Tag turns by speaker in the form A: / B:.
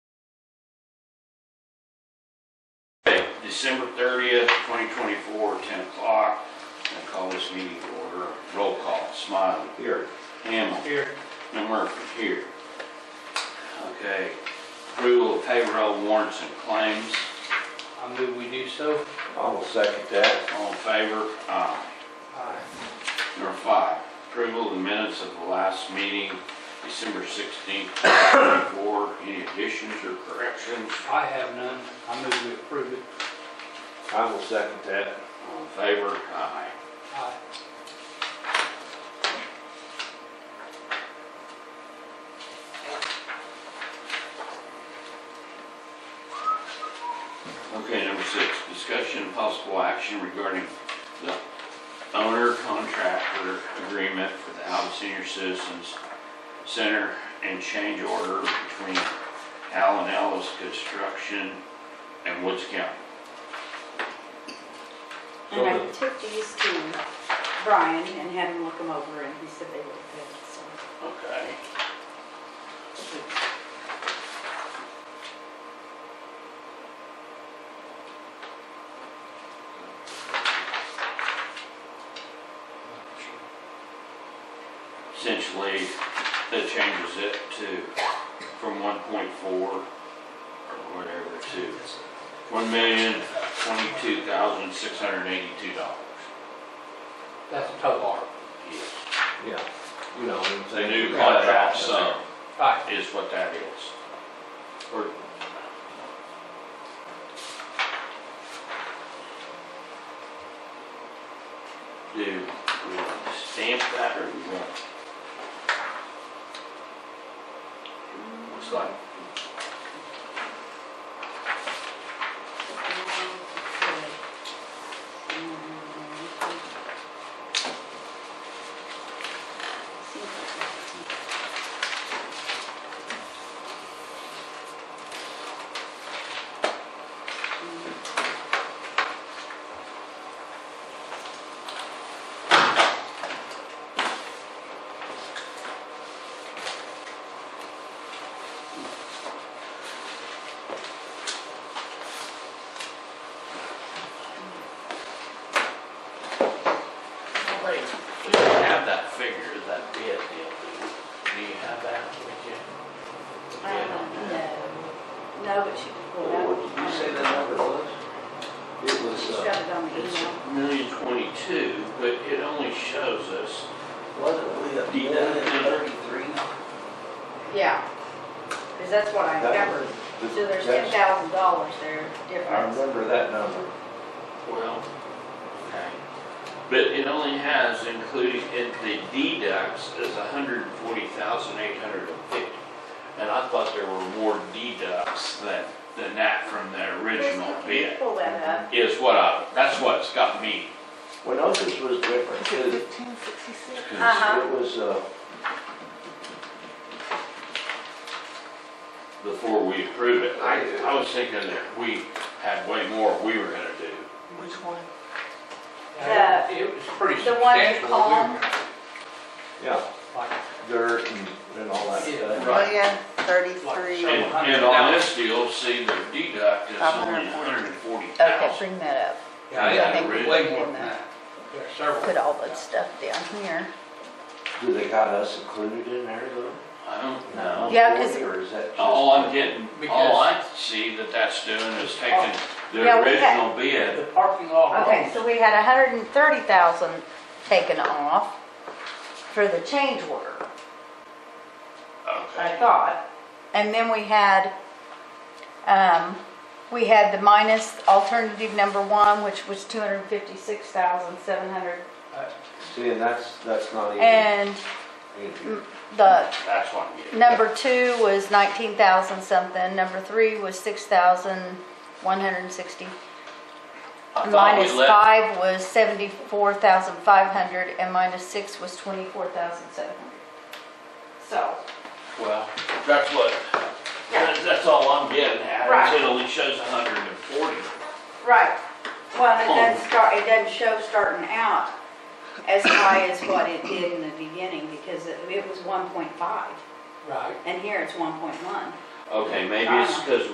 A: December 30th, 2024, 10 o'clock. I call this meeting to order. Roll call. Smiley. Here. Hamel.
B: Here.
A: And Murphy. Here. Okay. Approval of payroll warrants and claims.
B: I move we do so.
C: I will second that.
A: All in favor? Aye.
B: Aye.
A: Number five, approval of the minutes of the last meeting, December 16th, 2024. Any additions or corrections?
B: I have none. I move we approve it.
C: I will second that.
A: All in favor? Aye.
B: Aye.
A: Okay, number six, discussion and possible action regarding the owner contractor agreement for the Alva Senior Citizens Center and change order between Allen Ellis Construction and Woods County.
D: And I took these to Brian and had him look them over, and he said they look good, so.
A: Okay. Essentially, that changes it to, from one point four or whatever to one million twenty-two thousand six hundred eighty-two dollars.
B: That's a total.
A: Yes.
C: Yeah. You know what I'm
A: The
C: saying?
A: new contract sum
B: Aye.
A: is what that is.
C: Or-
A: Do we want to stamp that or do we want? Looks like Wait, we don't have that figure, that bid deal, do we? Do you have that with you?
D: I don't know. No, but she can pull it out.
C: What did you say that number was? It was,
D: She's
C: uh,
D: got it on the
A: It's
D: email.
A: million twenty-two, but it only shows us,
E: Wasn't we a
A: Yeah.
E: million thirty-three?
D: Yeah, because that's what I
C: that
D: covered.
C: was.
D: So there's ten
C: that's-
D: thousand dollars there
C: I
D: difference.
C: remember that number.
A: well, okay. But it only has including, it, the deducts is hundred and forty thousand eight hundred and fifty. And I thought there were more deducts than, than that from the original
D: Chris, Can you
A: bid,
D: pull that up?
A: is what I, that's what's got me.
C: Winokus was different too.
D: Uh-huh.
C: It was, uh,
A: Before we approve it, I, I was thinking that we had way more we were gonna do.
E: Which one?
B: Now, It it was pretty
D: the one you
B: substantial.
D: called?
C: yeah,
B: Like,
C: dirt and, and all that stuff.
A: Right.
E: Million
B: Like,
E: thirty-three.
A: And, and on this deal, see, the deduct is only a hundred and forty
F: Okay,
A: thousand.
F: bring that up.
B: Yeah,
A: I
B: it
A: think
B: was
A: we
B: way
F: did
B: more than
F: that.
B: that. There are several.
F: Put all that stuff down here.
C: Do they got us included in there though?
A: I don't know.
F: Yeah, 'cause-
C: Or is that just?
A: All I'm getting, all
B: Because-
A: I see that that's doing is taking
D: Yeah,
A: the
D: we had-
A: original bid.
B: The parking lot.
F: Okay, so we had a hundred and thirty thousand taken off for the change order, I
A: Okay,
F: thought. And then we had, um, we had the minus alternative number one, which was two hundred and fifty-six thousand seven hundred.
C: See, and that's, that's not even,
F: And
C: even-
F: the
A: that's what I'm getting.
F: number two was nineteen thousand something, number three was six thousand one hundred and sixty.
A: I thought we
F: Minus
A: left,
F: five was seventy-four thousand five hundred, and minus six was twenty-four thousand seven hundred. So,
A: well, that's what,
F: Yeah.
A: that's, that's all I'm getting at,
F: Right.
A: is it only shows a hundred and forty.
D: Right, well, it
A: Oh.
D: doesn't start, it doesn't show starting out as high as what it did in the beginning, because it, it was one point five,
B: Right.
D: and here it's one point one.
A: Okay, maybe it's because